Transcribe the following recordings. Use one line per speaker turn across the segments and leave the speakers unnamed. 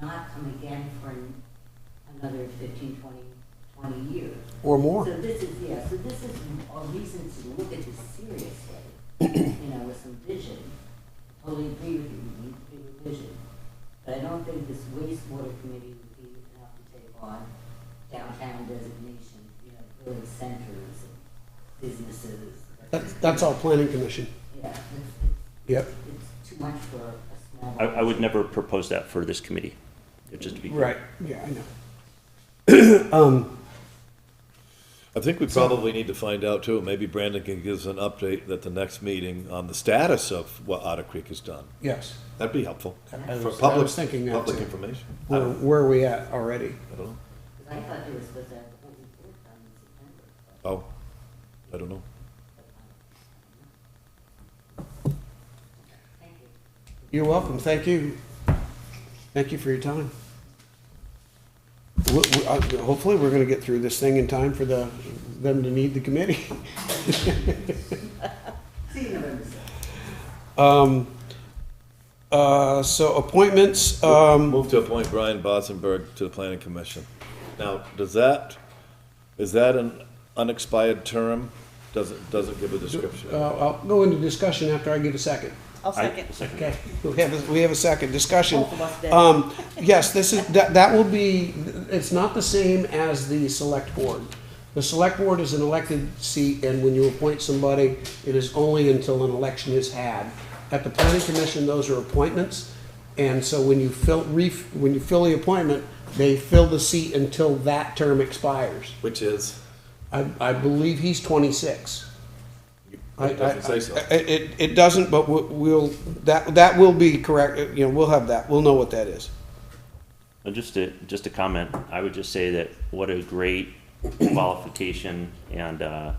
come again for an- another 15, 20, 20 years.
or more.
So this is, yeah, so this is a reason to look at this seriously, you know, with some vision. Totally agree with you, we need to be with vision. But I don't think this wastewater committee would be enough to take on downtown designation, you know, village centers and businesses.
That's, that's our planning commission.
Yeah, it's,
Yep.
it's- it's too much for a small.
I, I would never propose that for this committee, just to be. clear.
Yeah, I
I think we probably need to find out too, maybe Brandon can give us an update at the next meeting on the status of what Otter Creek has done.
Yes.
That'd be helpful.
I
For
was- I
public,
was thinking that
public
too.
information. I
Where,
don't
where are we at already?
I don't know.
Because I thought they were supposed to have the whole report done in September. but-
Oh, I don't know.
um, Thank you.
You're welcome. Thank you. Thank you for your time. We- we- uh, Hopefully, we're gonna get through this thing in time for the, them to need the committee.
See you November sixth.
Um, uh, so appointments, um,
Move to appoint Brian Bosenberg to the planning commission. Now, does that, is that an unexpired term? Doesn't, doesn't give a description.
uh, I'll go into discussion after I get a second.
I'll
I-
second.
Second.
Okay, we have, a- we have a second discussion.
Both of us did.
Um, yes, this is, that, that will be, it's not the same as the select board. The select board is an elected seat, and when you appoint somebody, it is only until an election is had. At the planning commission, those are appointments, and so when you fill, re, when you fill the appointment, they fill the seat until that term expires.
Which is,
I, I believe he's twenty-six. I-
it doesn't say so.
I- I- It, it doesn't, but we- we'll, that, that will be correct, you know, we'll have that, we'll know what that is.
And just to, just a comment, I would just say that what a great qualification and, uh,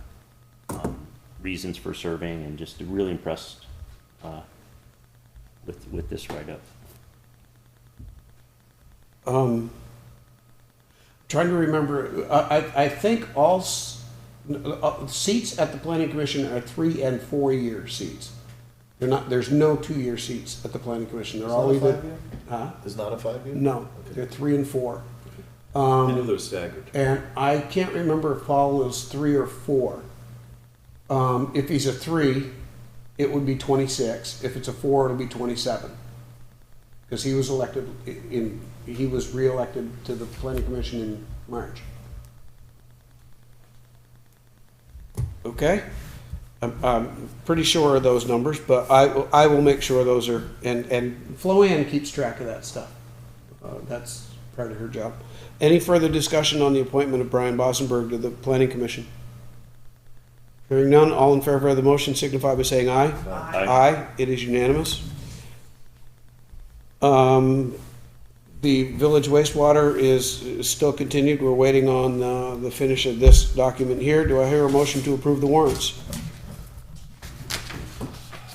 um, reasons for serving and just really impressed, uh, with, with this write-up.
Um, trying to remember, I, I, I think all s- uh, seats at the planning commission are three and four-year seats. They're not, there's no two-year seats at the planning commission, they're all either. Huh?
Is not a five-year?
No, they're three and four.
I knew they were staggered.
And I can't remember if Paul is three or four. Um, if he's a three, it would be twenty-six. If it's a four, it'll be twenty-seven. Because he was elected i- in, he was reelected to the planning commission in March. Okay? I'm, I'm pretty sure of those numbers, but I, will- I will make sure those are, and, and Flo Ann keeps track of that stuff. Uh, That's part of her job. Any further discussion on the appointment of Brian Bosenberg to the Planning Commission? Hearing none, all in favor of the motion signify by saying aye.
Aye.
Aye, it is unanimous. Um, The village wastewater is is still continued. We're waiting on uh, the finish of this document here. Do I hear a motion to approve the warrants?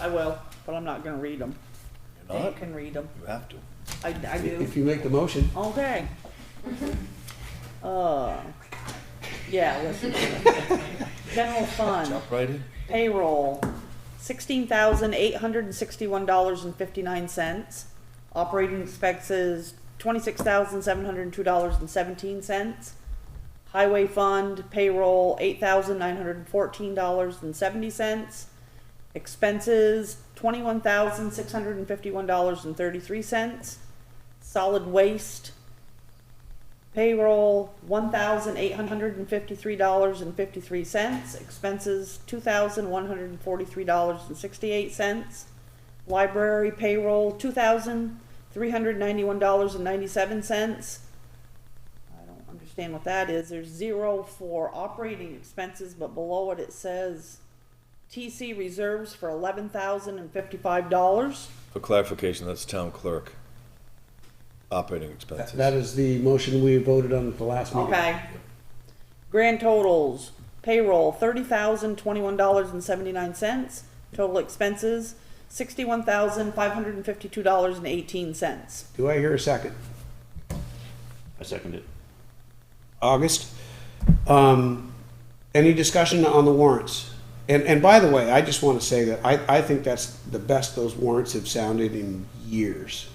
I will, but I'm not gonna read them.
You're
You
not?
can read them.
You have to.
I, I do,
If you make the motion.
all day. Uh, yeah, listen. General fund,
Jump right in.
payroll, sixteen thousand eight hundred and sixty-one dollars and fifty-nine cents. Operating expenses, twenty-six thousand seven hundred and two dollars and seventeen cents. Highway fund payroll, eight thousand nine hundred and fourteen dollars and seventy cents. Expenses, twenty-one thousand six hundred and fifty-one dollars and thirty-three cents. Solid waste payroll, one thousand eight hundred and fifty-three dollars and fifty-three cents. Expenses, two thousand one hundred and forty-three dollars and sixty-eight cents. Library payroll, two thousand three hundred ninety-one dollars and ninety-seven cents. I don't understand what that is. There's zero for operating expenses, but below it, it says TC reserves for eleven thousand and fifty-five dollars.
For clarification, that's town clerk. Operating expenses.
That is the motion we voted on at the last meeting.
Okay. Grand totals, payroll, thirty thousand, twenty-one dollars and seventy-nine cents. Total expenses, sixty-one thousand, five hundred and fifty-two dollars and eighteen cents.
Do I hear a second?
I second it.
August. Um, any discussion on the warrants? And, and by the way, I just want to say that I, I think that's the best those warrants have sounded in years.